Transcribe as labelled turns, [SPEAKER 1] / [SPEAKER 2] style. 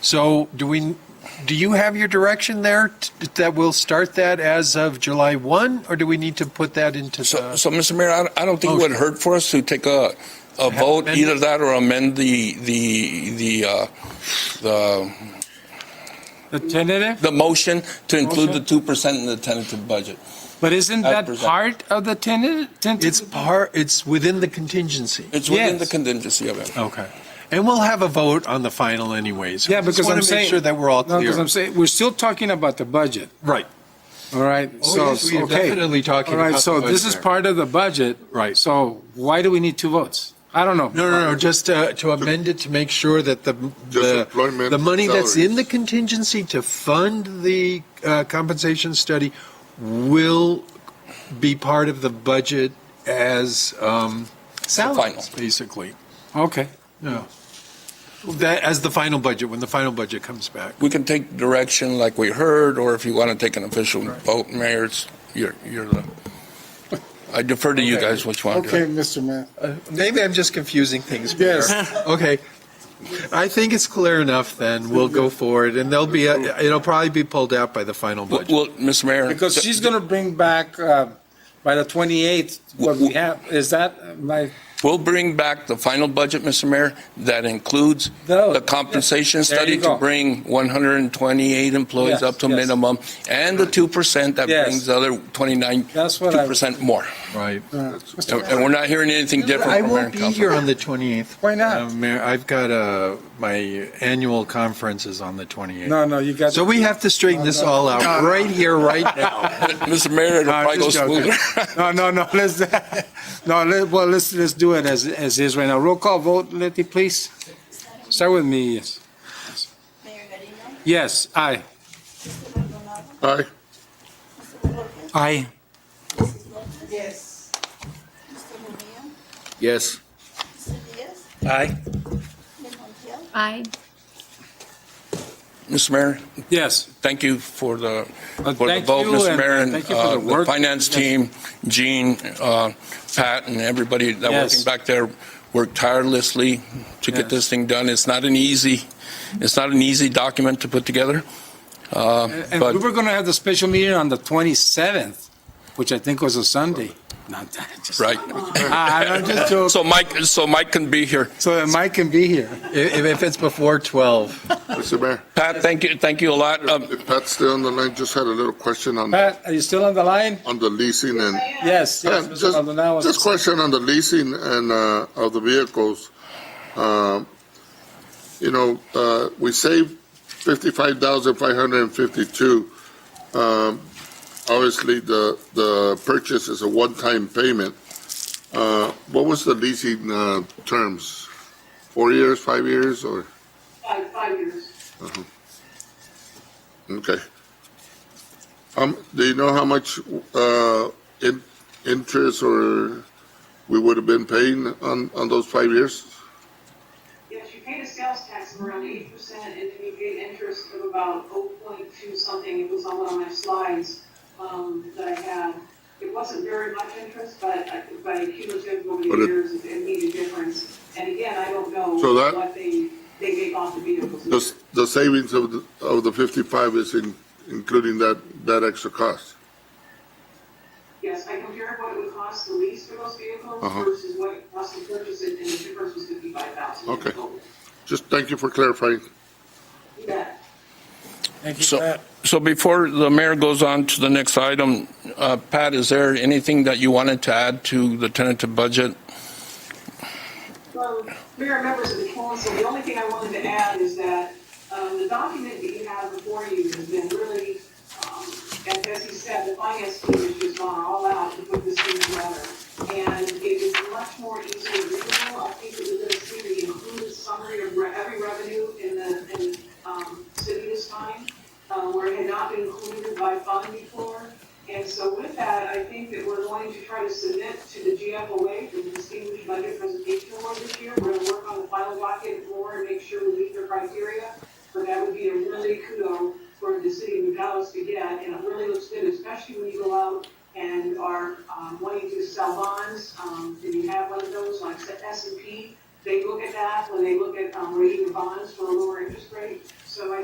[SPEAKER 1] So do we, do you have your direction there t- that we'll start that as of July 1? Or do we need to put that into
[SPEAKER 2] So,
[SPEAKER 1] the,
[SPEAKER 2] so, Mr. Mayor, I, I don't think it would hurt for us to take a, a vote,
[SPEAKER 1] amended?
[SPEAKER 2] either that or amend the, the, the, uh, the,
[SPEAKER 3] The tentative?
[SPEAKER 2] the motion to include the 2% in the tentative budget.
[SPEAKER 3] But isn't
[SPEAKER 2] Five
[SPEAKER 3] that
[SPEAKER 2] percent.
[SPEAKER 3] part of the tentative?
[SPEAKER 1] it's part, it's within the contingency?
[SPEAKER 2] It's within
[SPEAKER 3] Yes.
[SPEAKER 2] the contingency of it.
[SPEAKER 1] Okay. And we'll have a vote on the final anyways.
[SPEAKER 3] Yeah, because I'm
[SPEAKER 1] Just want to
[SPEAKER 3] saying.
[SPEAKER 1] make sure that we're all
[SPEAKER 3] No, because
[SPEAKER 1] clear.
[SPEAKER 3] I'm saying, we're still talking about the budget,
[SPEAKER 1] Right,
[SPEAKER 3] all right?
[SPEAKER 1] Oh,
[SPEAKER 3] So,
[SPEAKER 1] yes, we are
[SPEAKER 3] okay.
[SPEAKER 1] definitely talking
[SPEAKER 3] All right,
[SPEAKER 1] about the
[SPEAKER 3] so this
[SPEAKER 1] budget
[SPEAKER 3] is
[SPEAKER 1] there.
[SPEAKER 3] part of the budget.
[SPEAKER 1] Right.
[SPEAKER 3] So why do we need two votes? I don't know.
[SPEAKER 1] no, no, no, just uh, to amend it to make sure that the, the,
[SPEAKER 4] employment,
[SPEAKER 1] the money that's in
[SPEAKER 4] salaries.
[SPEAKER 1] the contingency to fund the uh, compensation study will be part of the budget as um,
[SPEAKER 2] final.
[SPEAKER 1] salaries, basically.
[SPEAKER 3] Okay.
[SPEAKER 1] Yeah. That, as the final budget, when the final budget comes back.
[SPEAKER 2] We can take direction like we heard, or if you want to take an official vote, Mayor, it's, you're, you're the, I defer to you guys which one.
[SPEAKER 4] Okay, Mr. Mayor.
[SPEAKER 1] Maybe I'm just confusing things.
[SPEAKER 4] Yes.
[SPEAKER 1] Mayor. Okay. I think it's clear enough then. We'll go forward and there'll be, a- it'll probably be pulled out by the final
[SPEAKER 2] Well,
[SPEAKER 1] budget.
[SPEAKER 2] well, Mr. Mayor.
[SPEAKER 5] Because she's going to bring back uh, by the 28th what we have. Is that my,
[SPEAKER 2] We'll bring back the final budget, Mr. Mayor, that includes
[SPEAKER 5] Those.
[SPEAKER 2] the compensation
[SPEAKER 5] There you
[SPEAKER 2] study to
[SPEAKER 5] go.
[SPEAKER 2] bring 128 employees
[SPEAKER 5] Yes,
[SPEAKER 2] up to
[SPEAKER 5] yes.
[SPEAKER 2] minimum, and the 2% that
[SPEAKER 5] Yes.
[SPEAKER 2] brings the other 29,
[SPEAKER 5] That's what I-
[SPEAKER 2] 2% more.
[SPEAKER 1] Right.
[SPEAKER 2] And and we're not hearing anything different
[SPEAKER 1] I
[SPEAKER 2] from Mayor
[SPEAKER 1] won't
[SPEAKER 2] and
[SPEAKER 1] be here
[SPEAKER 2] Council.
[SPEAKER 1] on the 28th.
[SPEAKER 5] Why not?
[SPEAKER 1] Uh, Mayor, I've got uh my annual conference is on the 28th.
[SPEAKER 5] no, no, you got.
[SPEAKER 1] So we have to straighten this all out right here, right now.
[SPEAKER 2] Mr. Mayor, it'll
[SPEAKER 5] No, I'm
[SPEAKER 2] probably go
[SPEAKER 5] just joking.
[SPEAKER 2] smoother.
[SPEAKER 5] No, no, no, let's, no, let, well, let's, let's do it as, as is right now. Roll call vote, Letty, please. Start with me, yes.
[SPEAKER 6] Mayor Garino,
[SPEAKER 5] Yes, aye.
[SPEAKER 6] Mr. Maldonado,
[SPEAKER 4] Aye.
[SPEAKER 5] Aye.
[SPEAKER 6] Mr. Lopez, Mrs. Lopez. Yes. Mr. Murguía,
[SPEAKER 2] Yes.
[SPEAKER 6] Mr. Diaz,
[SPEAKER 5] Aye.
[SPEAKER 6] Ms. Montiel,
[SPEAKER 7] Aye.
[SPEAKER 2] Mr. Mayor,
[SPEAKER 3] Yes.
[SPEAKER 2] thank you for the,
[SPEAKER 3] Uh,
[SPEAKER 2] for the
[SPEAKER 3] thank
[SPEAKER 2] vote,
[SPEAKER 3] you,
[SPEAKER 2] Mr.
[SPEAKER 3] and
[SPEAKER 2] Mayor, and
[SPEAKER 3] thank you for
[SPEAKER 2] uh,
[SPEAKER 3] the
[SPEAKER 2] the
[SPEAKER 3] work.
[SPEAKER 2] finance
[SPEAKER 3] Yes.
[SPEAKER 2] team, Gene, uh, Pat, and everybody that working
[SPEAKER 3] Yes.
[SPEAKER 2] back there worked tirelessly to get
[SPEAKER 3] Yes.
[SPEAKER 2] this thing done. It's not an easy, it's not an easy document to put together. uh,
[SPEAKER 3] And
[SPEAKER 2] But
[SPEAKER 3] we were going to have the special meeting on the 27th, which I think was a Sunday. Not that, just. Ah,
[SPEAKER 2] Right.
[SPEAKER 3] I- I'm just joking.
[SPEAKER 2] So Mike, so Mike can be here.
[SPEAKER 3] So that Mike can be here.
[SPEAKER 1] If, if it's before 12.
[SPEAKER 4] Mr. Mayor,
[SPEAKER 2] Pat, thank you, thank you a lot. Um,
[SPEAKER 4] if Pat's still on the line, just had a little question on,
[SPEAKER 5] Pat, are you still on the line?
[SPEAKER 4] on the leasing and.
[SPEAKER 5] Yes, yes,
[SPEAKER 2] Uh,
[SPEAKER 4] Yeah,
[SPEAKER 5] Mr. Maldonado.
[SPEAKER 4] Just, just question on the leasing and, uh, of the vehicles. Um, You know, uh, we saved fifty-five thousand five hundred and fifty-two. Um, Obviously, the, the purchase is a one-time payment. Uh, What was the leasing, uh, terms? Four years, five years, or?
[SPEAKER 8] Five, five years.
[SPEAKER 4] Okay. Um, do you know how much, uh, in, interest or we would have been paying on, on those five years?
[SPEAKER 8] Yes, you paid a sales tax of around eight percent, and then you paid interest of about oh point two something, it was on one of my slides, um, that I had. It wasn't very much interest, but, I- but cumulative over the
[SPEAKER 4] But it-
[SPEAKER 8] years, it it made a difference. And again, I don't know
[SPEAKER 4] So that-
[SPEAKER 8] what they, they make off the vehicles.
[SPEAKER 4] The, s- the savings of, the- of the fifty-five is in, including that, that extra cost.
[SPEAKER 8] Yes, I compared what it would cost to lease for those vehicles
[SPEAKER 4] Uh-huh.
[SPEAKER 8] versus what it cost to purchase it, and the difference was fifty-five thousand.
[SPEAKER 4] Okay. Just thank you for clarifying.
[SPEAKER 8] You bet.
[SPEAKER 5] Thank you,
[SPEAKER 2] So,
[SPEAKER 5] Pat.
[SPEAKER 2] so before the mayor goes on to the next item, uh, Pat, is there anything that you wanted to add to the tentative budget?
[SPEAKER 8] Well, Mayor, members of the council, the only thing I wanted to add is that um, the document that you have before you has been really, um, as as he said, the finance team has just gone all out to put this thing together. And it is much more easily readable. I think that you're going to see the included summary of re- every revenue in the, in um, city this time, uh, where it had not been included by fund before. And so with that, I think that we're going to try to submit to the GFOA for the Distinguished Budget Presentation Award this year. We're gonna work on the final docket more and make sure we meet their criteria. But that would be a really kudo for the city of Nogales to get, and it really looks good, especially when you go out and are, um, wanting to sell bonds. Um, if you have one of those, like S and P, They look at that when they look at, um, rating bonds for a lower interest rate. So I